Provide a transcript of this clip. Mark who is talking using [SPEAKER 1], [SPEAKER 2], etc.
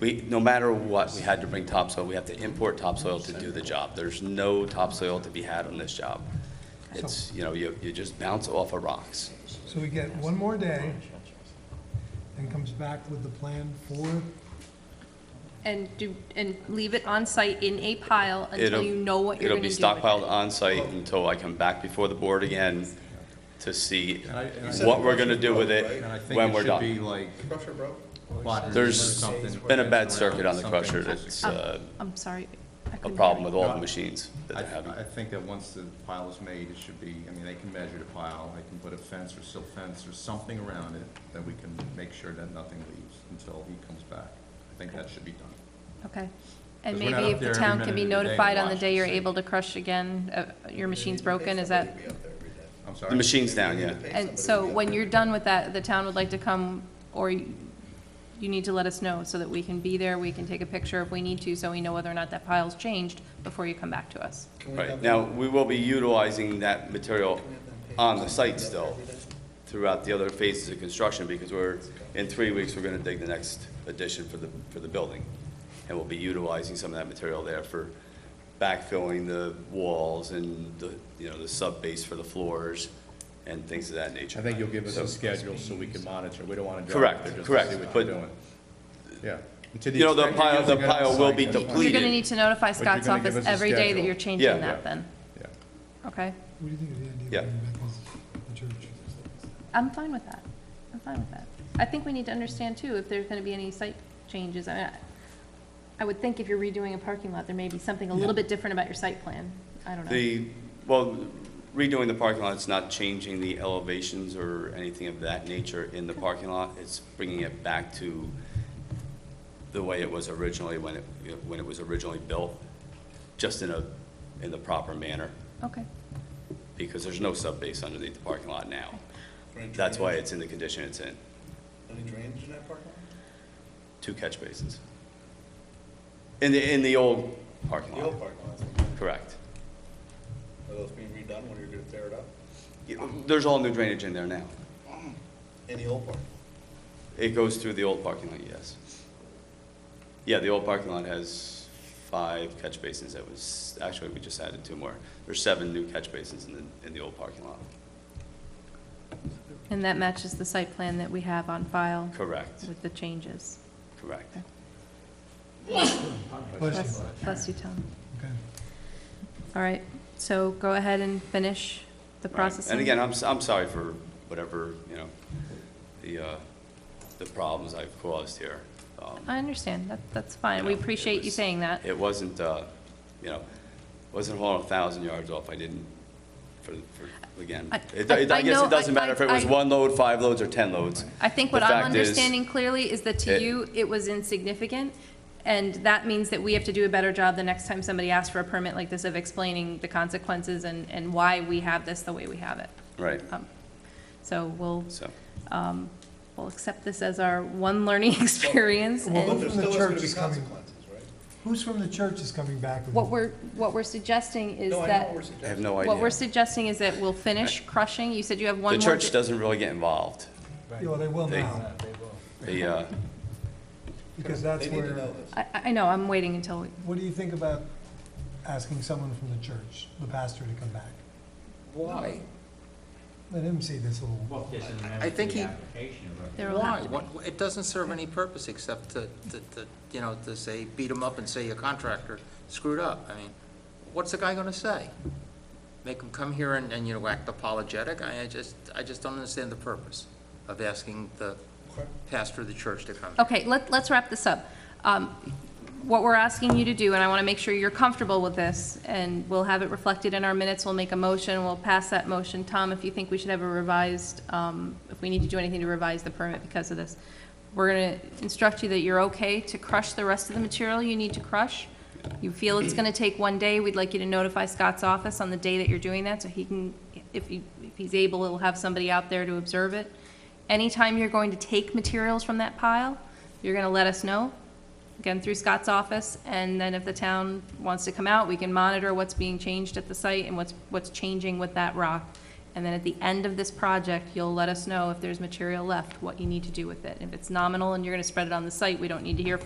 [SPEAKER 1] We, no matter what, we had to bring topsoil. We have to import topsoil to do the job. There's no topsoil to be had on this job. It's, you know, you, you just bounce off of rocks.
[SPEAKER 2] So we get one more day, and comes back with the plan for,
[SPEAKER 3] And do, and leave it on site in a pile until
[SPEAKER 1] It'll-
[SPEAKER 3] you know what you're gonna do with it.
[SPEAKER 1] It'll be stockpiled on site until I come back before the board again to see
[SPEAKER 4] And I- and I-
[SPEAKER 1] what we're gonna do with it
[SPEAKER 4] And I think
[SPEAKER 1] when we're
[SPEAKER 4] it should be
[SPEAKER 1] done.
[SPEAKER 4] like
[SPEAKER 5] Crusher broke.
[SPEAKER 4] plotters or
[SPEAKER 1] There's
[SPEAKER 4] something.
[SPEAKER 1] Been a bad
[SPEAKER 4] Around
[SPEAKER 1] circuit on the
[SPEAKER 4] something.
[SPEAKER 1] crusher that's
[SPEAKER 3] Um,
[SPEAKER 1] uh,
[SPEAKER 3] I'm sorry. I
[SPEAKER 1] a
[SPEAKER 3] couldn't hear
[SPEAKER 1] problem
[SPEAKER 3] you.
[SPEAKER 1] with all the machines that
[SPEAKER 4] I,
[SPEAKER 1] they're having.
[SPEAKER 4] I think that once the pile is made, it should be, I mean, they can measure the pile, they can put a fence or silt fence or something around it, that we can make sure that nothing leaves until he comes back. I think that should be done.
[SPEAKER 3] Okay. And
[SPEAKER 4] 'Cause we're not
[SPEAKER 3] maybe
[SPEAKER 4] up
[SPEAKER 3] if the
[SPEAKER 4] there every
[SPEAKER 3] town can be
[SPEAKER 4] minute of the day
[SPEAKER 3] notified on the
[SPEAKER 4] watching
[SPEAKER 3] day you're
[SPEAKER 4] the
[SPEAKER 3] able to crush again, uh, your machine's broken, is that?
[SPEAKER 4] I'm sorry.
[SPEAKER 1] The machine's down, yeah.
[SPEAKER 3] And so when you're done with that, the town would like to come, or you you need to let us know so that we can be there, we can take a picture if we need to, so we know whether or not that pile's changed before you come back to us.
[SPEAKER 1] Right, now, we will be utilizing that material on the site still throughout the other phases of construction, because we're, in three weeks, we're gonna dig the next addition for the, for the building. And we'll be utilizing some of that material there for backfilling the walls and the, you know, the sub base for the floors and things of that nature.
[SPEAKER 6] I think you'll give us
[SPEAKER 1] So-
[SPEAKER 6] a schedule so we can monitor. We don't want to
[SPEAKER 1] Correct,
[SPEAKER 6] drive there just
[SPEAKER 1] correct,
[SPEAKER 6] to see what
[SPEAKER 1] but-
[SPEAKER 6] you're doing. Yeah. And to
[SPEAKER 1] You know, the
[SPEAKER 6] extent you're
[SPEAKER 1] pile- the
[SPEAKER 6] using it on
[SPEAKER 1] pile will
[SPEAKER 6] site,
[SPEAKER 1] be
[SPEAKER 6] that's fine.
[SPEAKER 3] You're
[SPEAKER 1] depleted.
[SPEAKER 3] gonna need to notify
[SPEAKER 6] But you're
[SPEAKER 3] Scott's
[SPEAKER 6] gonna give
[SPEAKER 3] office
[SPEAKER 6] us a
[SPEAKER 3] every day that
[SPEAKER 6] schedule.
[SPEAKER 3] you're
[SPEAKER 1] Yeah.
[SPEAKER 3] changing that then,
[SPEAKER 6] Yeah.
[SPEAKER 3] okay?
[SPEAKER 2] what do you think of the idea of
[SPEAKER 1] Yeah.
[SPEAKER 2] bringing back the church?
[SPEAKER 3] I'm fine with that. I'm fine with that. I think we need to understand too, if there's gonna be any site changes. I mean, I- I would think if you're redoing a parking lot, there may be something a little bit different about your site plan. I don't know.
[SPEAKER 1] The, well, redoing the parking lot, it's not changing the elevations or anything of that nature in the parking lot. It's bringing it back to the way it was originally, when it, you know, when it was originally built, just in a, in the proper manner,
[SPEAKER 3] Okay,
[SPEAKER 1] because there's no subbase underneath the parking lot now. That's why it's in the condition it's in,
[SPEAKER 5] Any drainage in that parking lot?
[SPEAKER 1] two catch basins. In the, in the old parking
[SPEAKER 5] The old
[SPEAKER 1] lot,
[SPEAKER 5] parking lot,
[SPEAKER 1] correct.
[SPEAKER 5] are those being redone when you're gonna tear it up?
[SPEAKER 1] Yeah, There's all new drainage in there now.
[SPEAKER 5] In the old parking?
[SPEAKER 1] It goes through the old parking lot, yes. Yeah, the old parking lot has five catch basins. That was, actually, we just added two more. There's seven new catch basins in the, in the old parking lot.
[SPEAKER 3] and that matches the site plan that we have on file
[SPEAKER 1] Correct,
[SPEAKER 3] with the changes.
[SPEAKER 1] correct.
[SPEAKER 2] Bless
[SPEAKER 3] Bless
[SPEAKER 2] you.
[SPEAKER 3] bless you, Tom.
[SPEAKER 2] Okay.
[SPEAKER 3] All right, so go ahead and finish the
[SPEAKER 1] Right.
[SPEAKER 3] processing.
[SPEAKER 1] And again, I'm, s- I'm sorry for whatever, you know, the, uh, the problems I've caused here. Um,
[SPEAKER 3] I understand, that, that's fine. We
[SPEAKER 1] know, it
[SPEAKER 3] appreciate you
[SPEAKER 1] was-
[SPEAKER 3] saying that.
[SPEAKER 1] It wasn't, uh, you know, wasn't hauling a thousand yards off, I didn't, for, for, again.
[SPEAKER 3] I-
[SPEAKER 1] It- it-
[SPEAKER 3] I-
[SPEAKER 1] I
[SPEAKER 3] I
[SPEAKER 1] guess
[SPEAKER 3] know-
[SPEAKER 1] it doesn't
[SPEAKER 3] I-
[SPEAKER 1] matter if it
[SPEAKER 3] I-
[SPEAKER 1] was
[SPEAKER 3] I-
[SPEAKER 1] one load, five loads, or 10 loads.
[SPEAKER 3] I think
[SPEAKER 1] The
[SPEAKER 3] what I'm
[SPEAKER 1] fact is-
[SPEAKER 3] understanding clearly is that to
[SPEAKER 1] It-
[SPEAKER 3] you, it was insignificant, and that means that we have to do a better job the next time somebody asks for a permit like this of explaining the consequences and, and why we have this the way we have it.
[SPEAKER 1] Right,
[SPEAKER 3] Um, So we'll,
[SPEAKER 1] so.
[SPEAKER 3] um, we'll accept this as our one learning experience,
[SPEAKER 2] Well,
[SPEAKER 5] But
[SPEAKER 3] and
[SPEAKER 5] there
[SPEAKER 2] From the
[SPEAKER 5] still is gonna
[SPEAKER 2] church
[SPEAKER 5] be
[SPEAKER 2] is coming.
[SPEAKER 5] consequences, right?
[SPEAKER 2] Who's from the church is coming back with?
[SPEAKER 3] what we're, what we're suggesting is
[SPEAKER 5] No, I know what
[SPEAKER 3] that,
[SPEAKER 5] we're
[SPEAKER 1] I have
[SPEAKER 5] suggesting.
[SPEAKER 1] no idea.
[SPEAKER 3] what we're suggesting is that we'll finish crushing, you said you have one
[SPEAKER 1] The
[SPEAKER 3] more.
[SPEAKER 1] church
[SPEAKER 3] di-
[SPEAKER 1] doesn't really get involved.
[SPEAKER 2] Yeah, well, they will
[SPEAKER 1] They-
[SPEAKER 2] now,
[SPEAKER 1] The, uh,
[SPEAKER 2] because that's
[SPEAKER 5] They need to
[SPEAKER 2] where,
[SPEAKER 5] know this.
[SPEAKER 3] I, I know, I'm waiting until, we-
[SPEAKER 2] what do you think about asking someone from the church, the pastor, to come back?
[SPEAKER 4] Why?
[SPEAKER 2] Let him see this little.
[SPEAKER 7] I think he-
[SPEAKER 3] there will
[SPEAKER 7] Why?
[SPEAKER 3] have to be.
[SPEAKER 7] What- It doesn't serve any purpose except to, to, to, you know, to say, beat him up and say your contractor screwed up. I mean, what's the guy gonna say? Make him come here and, and, you know, act apologetic? I I just, I just don't understand the purpose of asking the pastor of the church to come.
[SPEAKER 3] Okay, let, let's wrap this up. Um, What we're asking you to do, and I want to make sure you're comfortable with this, and we'll have it reflected in our minutes, we'll make a motion, we'll pass that motion. Tom, if you think we should have a revised, um, if we need to do anything to revise the permit because of this, we're going to instruct you that you're okay to crush the rest of the material you need to crush. You feel it's going to take one day, we'd like you to notify Scott's office on the day that you're doing that, so he can, if he, if he's able, he'll have somebody out there to observe it. Anytime you're going to take materials from that pile, you're gonna let us know, again, through Scott's office, and then if the town wants to come out, we can monitor what's being changed at the site and what's, what's changing with that rock. And then at the end of this project, you'll let us know if there's material left, what you need to do with it. If it's nominal and you're gonna spread it on the site, we don't need to hear from